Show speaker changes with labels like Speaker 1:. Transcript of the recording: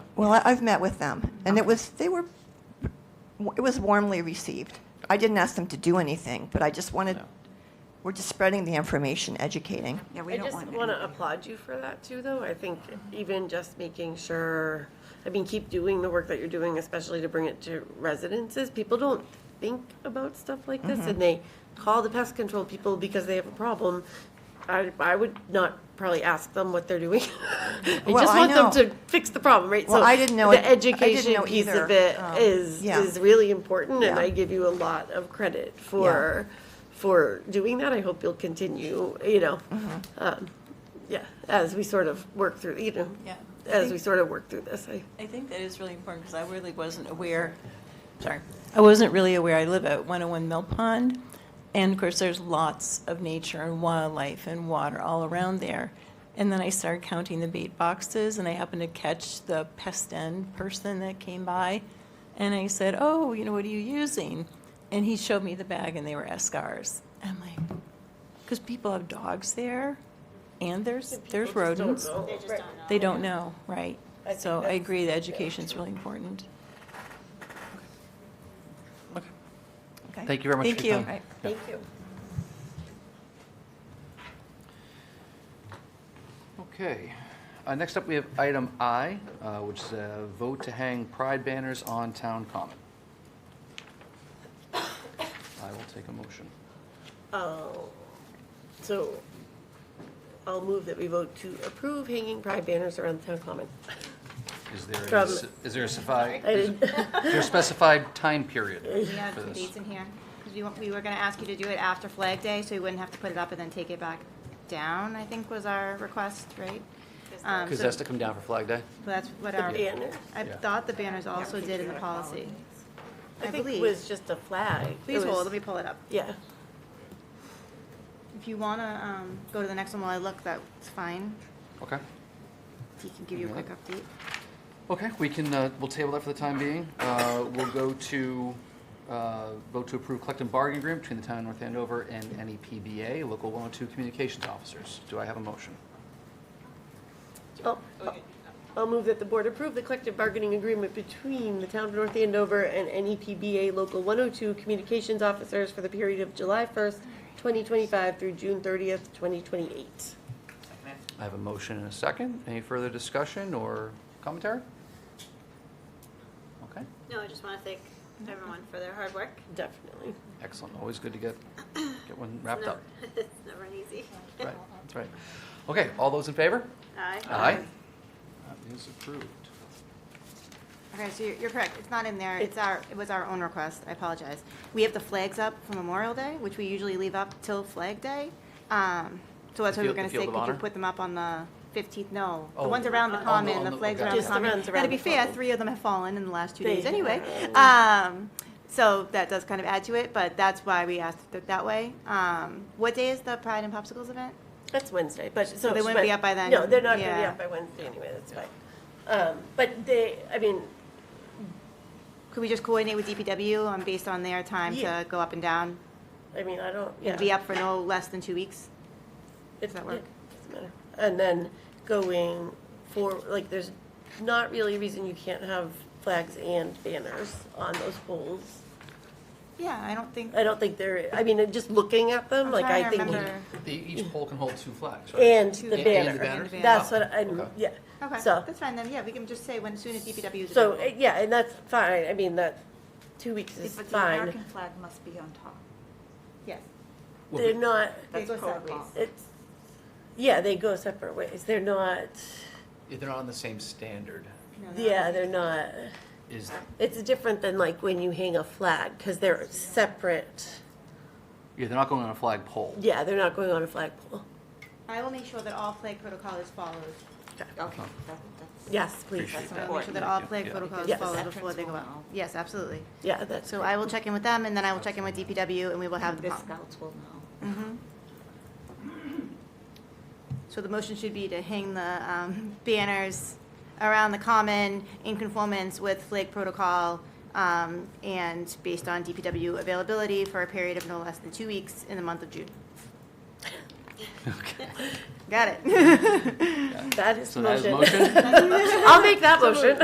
Speaker 1: Well, I- I've met with them, and it was, they were, it was warmly received. I didn't ask them to do anything, but I just wanted,
Speaker 2: No.
Speaker 1: we're just spreading the information, educating.
Speaker 3: Yeah, we
Speaker 4: I
Speaker 3: don't
Speaker 4: just
Speaker 3: want.
Speaker 4: want to
Speaker 3: anybody-
Speaker 4: applaud you for that too, though. I think even just making sure, I mean, keep doing the work that you're doing, especially to bring it to residences. People don't think about stuff like this
Speaker 1: Mm-hmm.
Speaker 4: and they call the pest control people because they have a problem. I, I would not probably ask them what they're doing. I
Speaker 1: Well,
Speaker 4: just
Speaker 1: I
Speaker 4: want them
Speaker 1: know.
Speaker 4: to fix the problem, right?
Speaker 1: Well,
Speaker 4: So
Speaker 1: I didn't know it-
Speaker 4: The
Speaker 1: I didn't
Speaker 4: education
Speaker 1: know
Speaker 4: piece
Speaker 1: either.
Speaker 4: of it
Speaker 1: Um,
Speaker 4: is,
Speaker 1: yeah.
Speaker 4: is really important and
Speaker 1: Yeah.
Speaker 4: I give you a lot of credit for, for doing that. I hope you'll continue, you know, um, yeah, as we sort of work through, you know,
Speaker 5: Yeah.
Speaker 4: as we sort of work through this. I-
Speaker 5: I think that is really important because I really wasn't aware, sorry, I wasn't really aware. I live at 101 Mill Pond, and of course, there's lots of nature and wildlife and water all around there. And then I started counting the bait boxes, and I happened to catch the pest end person that came by, and I said, "Oh, you know, what are you using?" And he showed me the bag, and they were Escars. I'm like, because people have dogs there, and there's there's
Speaker 4: People just don't
Speaker 5: rodents.
Speaker 4: know. Right.
Speaker 5: They don't know, right?
Speaker 4: I
Speaker 5: So
Speaker 4: think
Speaker 5: I
Speaker 4: that's-
Speaker 5: agree that education's really important.
Speaker 2: Okay.
Speaker 1: Okay.
Speaker 2: Thank you very much
Speaker 5: Thank
Speaker 2: for your
Speaker 5: you.
Speaker 2: time.
Speaker 4: Thank you.
Speaker 2: Okay. Uh, Next up, we have item I, uh, which is a vote to hang pride banners on town common. I will take a motion.
Speaker 4: Oh, So I'll move that we vote to approve hanging pride banners around the town common.
Speaker 2: Is there, a
Speaker 4: From-
Speaker 2: s- is there a specified,
Speaker 4: I didn't-
Speaker 2: is there a specified time period
Speaker 6: We have
Speaker 2: for
Speaker 6: some
Speaker 2: this?
Speaker 6: dates in here, because we, want- we were gonna ask you to do it after Flag Day, so we wouldn't have to put it up and then take it back down, I think was our request, right? Um,
Speaker 2: Because
Speaker 6: so
Speaker 2: that's to come down for Flag Day?
Speaker 6: That's what our,
Speaker 4: banner.
Speaker 6: I
Speaker 2: Yeah.
Speaker 6: thought the banners also did in the policy, I
Speaker 4: I think it
Speaker 6: believe.
Speaker 4: was just a flag. It
Speaker 6: Please
Speaker 4: was-
Speaker 6: hold, let me pull it up.
Speaker 4: Yeah.
Speaker 6: If you wanna, um, go to the next one while I look, that's fine,
Speaker 2: Okay.
Speaker 6: he can give you a
Speaker 2: Yeah.
Speaker 6: quick update.
Speaker 2: Okay, we can, uh, we'll table that for the time being. Uh, We'll go to, uh, vote to approve collective bargaining agreement between the town of North Andover and E NEPBA, Local 102 Communications Officers. Do I have a motion?
Speaker 4: I'll- I'll move that the board approve the collective bargaining agreement between the town of North Andover and E NEPBA Local 102 Communications Officers for the period of July 1st, 2025 through June 30th, 2028.
Speaker 2: I have a motion and a second. Any further discussion or commentary? Okay,
Speaker 7: No, I just want to thank everyone for their hard work.
Speaker 4: Definitely.
Speaker 2: excellent. Always good to get, get one wrapped up.
Speaker 7: It's never an easy.
Speaker 2: Right, that's right. Okay, all those in favor?
Speaker 7: Aye.
Speaker 2: That is approved.
Speaker 6: Okay, so you're, you're correct, it's not in there, it's our, it was our own request, I apologize. We have the flags up for Memorial Day, which we usually leave up till Flag Day. Um, so that's
Speaker 2: The
Speaker 6: what we
Speaker 2: field-
Speaker 6: were gonna
Speaker 2: the Field
Speaker 6: say,
Speaker 2: of
Speaker 6: could you
Speaker 2: Honor?
Speaker 6: put them up on the fifteenth, no,
Speaker 2: Oh.
Speaker 6: the ones around the
Speaker 2: Oh,
Speaker 6: common,
Speaker 2: on
Speaker 6: the
Speaker 2: the-
Speaker 6: flags
Speaker 2: okay.
Speaker 6: around the
Speaker 2: Just the
Speaker 6: common.
Speaker 4: ones
Speaker 6: Now,
Speaker 4: around
Speaker 6: to be
Speaker 4: the
Speaker 6: fair,
Speaker 4: common.
Speaker 6: three of them have fallen in the last two days
Speaker 4: They
Speaker 6: anyway. Um, so that does kind of add to it, but that's why we asked it that way. Um, what day is the Pride and Popsicles event?
Speaker 4: That's Wednesday, but so.
Speaker 6: they wouldn't
Speaker 4: but-
Speaker 6: be up by then?
Speaker 4: No, they're not going to be
Speaker 6: Yeah.
Speaker 4: up by Wednesday anyway, that's fine. Um, But they, I mean,
Speaker 6: Could we just coordinate with DPW on, based on their time
Speaker 4: Yeah.
Speaker 6: to go up and down?
Speaker 4: I mean, I don't, yeah.
Speaker 6: And be up for no less than two weeks?
Speaker 4: It's
Speaker 6: that work?
Speaker 4: yeah, Doesn't matter. And then going for, like, there's not really a reason you can't have flags and banners on those poles.
Speaker 6: Yeah, I don't think.
Speaker 4: I don't think there, I mean, just looking at them,
Speaker 6: I'm
Speaker 4: like,
Speaker 6: trying
Speaker 4: I
Speaker 6: to
Speaker 4: think.
Speaker 6: remember.
Speaker 2: The- Each poll can hold two flags, right?
Speaker 4: And
Speaker 6: Two
Speaker 4: the
Speaker 6: And-
Speaker 2: and the
Speaker 4: banner.
Speaker 2: banners?
Speaker 4: That's
Speaker 2: Oh,
Speaker 4: what I'm,
Speaker 2: okay.
Speaker 4: yeah.
Speaker 6: Okay,
Speaker 4: So,
Speaker 6: that's fine then. Yeah, we can just say when as soon as DPW is
Speaker 4: so, uh,
Speaker 6: available.
Speaker 4: yeah, and that's fine. I mean, that, two weeks is
Speaker 3: But the American
Speaker 4: fine.
Speaker 3: flag must be on top.
Speaker 6: yes.
Speaker 2: Well,
Speaker 4: They're not,
Speaker 3: That's
Speaker 6: go
Speaker 3: code
Speaker 6: sideways.
Speaker 3: law.
Speaker 4: it's, yeah, they go separate ways. They're not,
Speaker 2: They're not on the same standard.
Speaker 6: No, no.
Speaker 4: yeah, they're not.
Speaker 2: Is,
Speaker 4: It's different than like when you hang a flag, because they're separate.
Speaker 2: yeah, they're not going on a flag pole.
Speaker 4: Yeah, they're not going on a flagpole.
Speaker 6: I will make sure that all flag protocol is followed.
Speaker 3: Okay, that, that's.
Speaker 4: Yes, please.
Speaker 2: Appreciate
Speaker 6: I
Speaker 2: that.
Speaker 6: will make sure that all
Speaker 2: Yeah,
Speaker 6: flag
Speaker 2: yeah.
Speaker 6: protocol is
Speaker 4: Yes.
Speaker 6: followed
Speaker 3: Veterans
Speaker 6: before they go
Speaker 3: will
Speaker 6: out.
Speaker 3: know.
Speaker 6: Yes, absolutely.
Speaker 4: Yeah, that's,
Speaker 6: So I will check in with them and then I will check in with DPW and we will have the.
Speaker 3: The
Speaker 6: pol-
Speaker 3: scouts will know.
Speaker 6: Mm-hmm. So the motion should be to hang the um, banners around the common in conformance with flag protocol um, and based on DPW availability for a period of no less than two weeks in the month of June. Got it.
Speaker 4: that is
Speaker 2: So that is
Speaker 4: motion.
Speaker 2: motion?
Speaker 4: I'll make that motion.